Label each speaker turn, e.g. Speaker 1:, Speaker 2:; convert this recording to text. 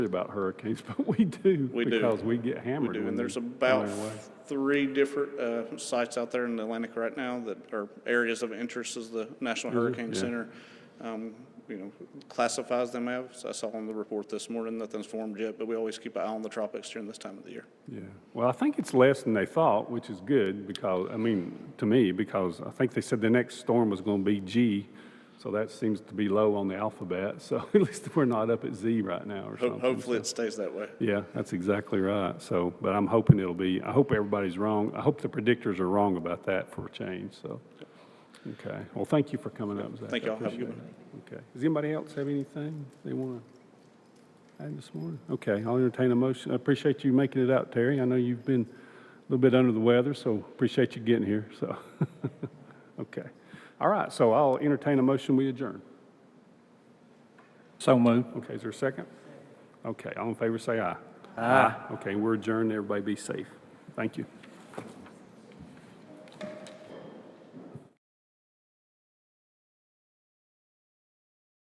Speaker 1: about hurricanes, but we do.
Speaker 2: We do.
Speaker 1: Because we get hammered.
Speaker 2: We do,
Speaker 1: when
Speaker 2: and
Speaker 1: they're
Speaker 2: there's
Speaker 1: on
Speaker 2: about
Speaker 1: their way.
Speaker 2: three different uh, sites out there in the Atlantic right now that are areas of interest as the National Hurricane
Speaker 1: Mm-hmm. Yeah.
Speaker 2: Center, um, you know, classifies them as. I saw on the report this morning, nothing's formed yet, but we always keep an eye on the tropics during this time of the year.
Speaker 1: Yeah, well, I think it's less than they thought, which is good because, I mean, to me, because I think they said the next storm was going to be G. So that seems to be low on the alphabet. So at least we're not up at Z right now or
Speaker 2: Ho-
Speaker 1: something.
Speaker 2: Hopefully, it stays that way.
Speaker 1: Yeah, that's exactly right. So, but I'm hoping it'll be, I hope everybody's wrong. I hope the predictors are wrong about that for a change, so. Okay, well, thank you for coming up, Zach.
Speaker 2: Thank
Speaker 1: I
Speaker 2: y'all. Have a good
Speaker 1: appreciate it. Okay, does anybody else have anything they want to add this morning? Okay, I'll entertain a motion. I appreciate you making it out, Terry. I know you've been a little bit under the weather, so appreciate you getting here, so. Okay, all right, so I'll entertain a motion, we adjourn.
Speaker 3: So moved.
Speaker 1: Okay, is there a second? Okay, all in favor, say aye. Aye. Okay, we're adjourned, everybody be safe. Thank you.